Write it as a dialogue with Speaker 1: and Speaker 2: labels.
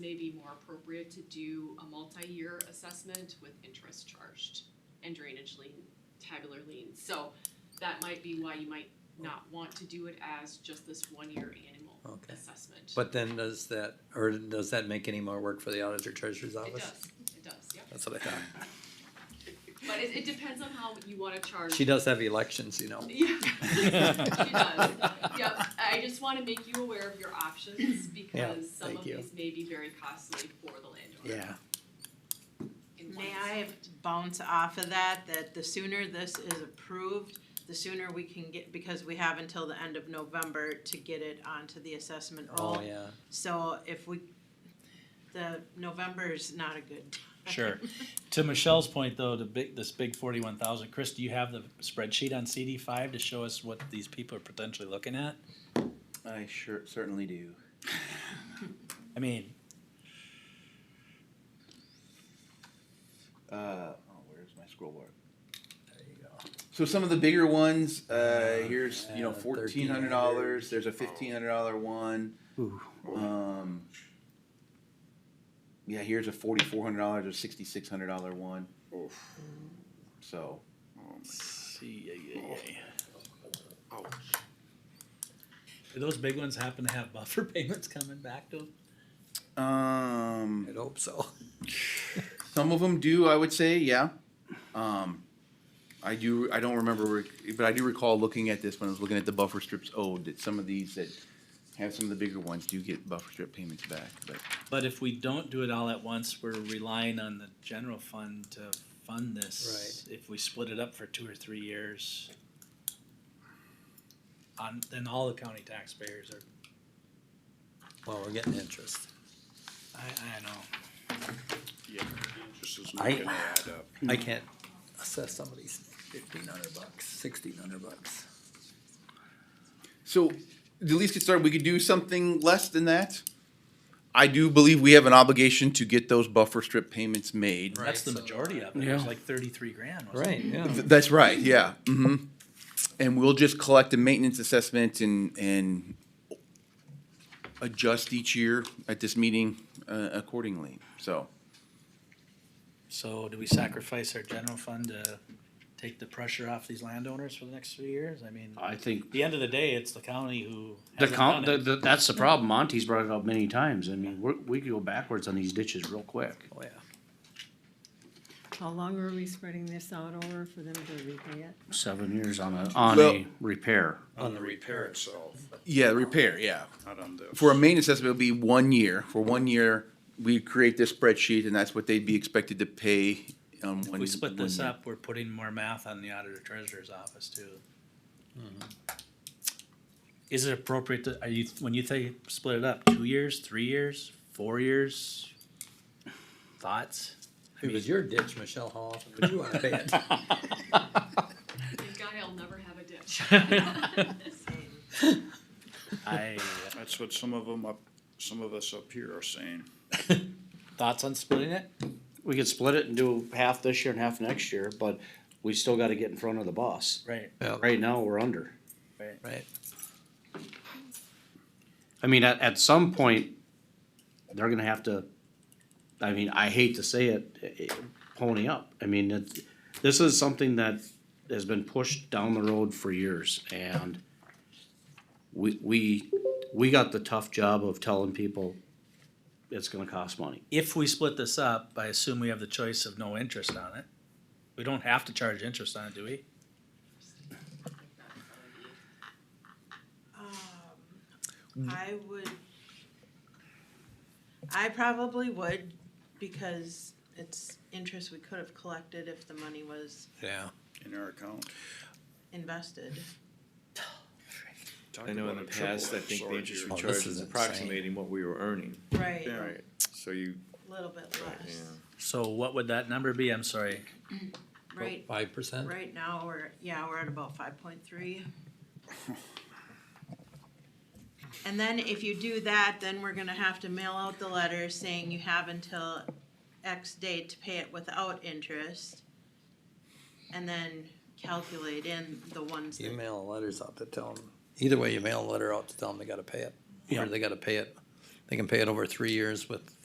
Speaker 1: may be more appropriate to do a multi-year assessment with interest charged and drainage lien, tabular lien. So that might be why you might not want to do it as just this one-year annual
Speaker 2: Okay.
Speaker 1: assessment.
Speaker 2: But then does that, or does that make any more work for the auditor treasurer's
Speaker 1: It
Speaker 2: office?
Speaker 1: does, it does, yeah.
Speaker 2: That's what I thought.
Speaker 1: But it, it depends on how you wanna charge.
Speaker 2: She does have elections, you know.
Speaker 1: Yeah. She does. Yep, I just wanna make you aware of your options because some
Speaker 2: thank
Speaker 1: of
Speaker 2: you.
Speaker 1: these may be very costly for the landowner.
Speaker 2: Yeah,
Speaker 1: in one
Speaker 3: May I bounce off of that, that the sooner this is approved, the sooner we can get, because we have until the end of November to get it onto the assessment roll.
Speaker 2: oh, yeah.
Speaker 3: So if we, the November is not a good time.
Speaker 4: Sure. To Michelle's point, though, the big, this big forty-one thousand, Chris, do you have the spreadsheet on CD five to show us what these people are potentially looking at?
Speaker 5: I sure certainly do.
Speaker 4: I mean,
Speaker 5: Uh, oh, where's my scroll bar? So some of the bigger ones, uh, here's you know
Speaker 2: Uh,
Speaker 5: fourteen hundred dollars. There's a fifteen hundred dollar one. Um, yeah, here's a forty four hundred dollars or sixty six hundred dollar one. So
Speaker 4: see, yeah, yeah, yeah. Do those big ones happen to have buffer payments coming back to them?
Speaker 5: um,
Speaker 2: I'd hope so.
Speaker 5: Some of them do, I would say, yeah. Um, I do, I don't remember, rec- but I do recall looking at this when I was looking at the buffer strips owed, that some of these that have some of the bigger ones do get buffer strip payments back, but
Speaker 4: But if we don't do it all at once, we're relying on the general fund to fund this. If we split it up for two or three years, on, then all the county taxpayers are
Speaker 2: Well, we're getting interest.
Speaker 4: I, I know.
Speaker 6: Yeah, interest is
Speaker 2: I-
Speaker 6: not gonna add up.
Speaker 2: I can't assess somebody's fifteen hundred bucks, sixteen hundred bucks.
Speaker 5: So, at least get started, we could do something less than that. I do believe we have an obligation to get those buffer strip payments made.
Speaker 2: Right.
Speaker 4: That's the
Speaker 2: so-
Speaker 4: majority of it. It was like thirty-three grand, wasn't it?
Speaker 2: Right, yeah.
Speaker 5: Th- That's right, yeah, hmm And we'll just collect a maintenance assessment and, and adjust each year at this meeting, uh, accordingly, so.
Speaker 4: So do we sacrifice our general fund to take the pressure off these landowners for the next three years? I mean, at
Speaker 6: I think
Speaker 4: the end of the day, it's the county who
Speaker 6: the
Speaker 4: hasn't done
Speaker 6: count, the,
Speaker 4: it.
Speaker 6: the, that's the problem. Monty's brought it up many times. I mean, we're, we could go backwards on these ditches real quick.
Speaker 2: Oh, yeah.
Speaker 7: How long are we spreading this out over for them to repay it?
Speaker 6: Seven years on a, on
Speaker 5: Well-
Speaker 6: a repair.
Speaker 2: On the repair.
Speaker 6: itself,
Speaker 5: Yeah, repair, yeah.
Speaker 6: not on the.
Speaker 5: For a maintenance assessment, it'll be one year, for one year, we create this spreadsheet and that's what they'd be expected to pay um, on
Speaker 4: If
Speaker 5: one.
Speaker 4: we split
Speaker 5: one
Speaker 4: this
Speaker 5: year.
Speaker 4: up, we're putting more math on the auditor treasurer's office too.
Speaker 2: Mm-hmm.
Speaker 4: Is it appropriate to, are you, when you say split it up, two years, three years, four years? Thoughts?
Speaker 2: If it was your ditch, Michelle, how often would you wanna pay it?
Speaker 1: Thank God I'll never have a ditch.
Speaker 3: Um,
Speaker 4: I, uh,
Speaker 6: That's what some of them up, some of us up here are saying.
Speaker 4: thoughts on splitting it?
Speaker 6: We could split it and do half this year and half next year, but we still gotta get in front of the boss.
Speaker 4: Right.
Speaker 6: Right now, we're under.
Speaker 2: Right,
Speaker 6: I mean, at, at some point, they're gonna have to, I mean, I hate to say it, eh, eh, pony up. I mean, it, this is something that has been pushed down the road for years and we, we, we got the tough job of telling people it's gonna cost money.
Speaker 4: if we split this up, I assume we have the choice of no interest on it. We don't have to charge interest on it, do we?
Speaker 3: Um, I would, I probably would, because it's interest we could have collected if the money was
Speaker 2: yeah.
Speaker 6: In our account.
Speaker 3: invested.
Speaker 8: I know in the past, I think the interest we
Speaker 2: Oh, this
Speaker 8: charged
Speaker 2: is
Speaker 8: was
Speaker 2: insane.
Speaker 8: approximating what we were earning.
Speaker 3: Right, a
Speaker 8: Right. So you,
Speaker 3: little bit
Speaker 8: yeah.
Speaker 3: less.
Speaker 4: So what would that number be? I'm sorry.
Speaker 3: Right,
Speaker 2: Five percent?
Speaker 3: right now, we're, yeah, we're at about five point three. And then if you do that, then we're gonna have to mail out the letter saying you have until X date to pay it without interest. And then calculate in the ones
Speaker 2: You
Speaker 3: that,
Speaker 2: mail letters out to tell them, either way, you mail a letter out to tell them they gotta pay it, or
Speaker 6: Yeah.
Speaker 2: they gotta pay it. They can pay it over three years with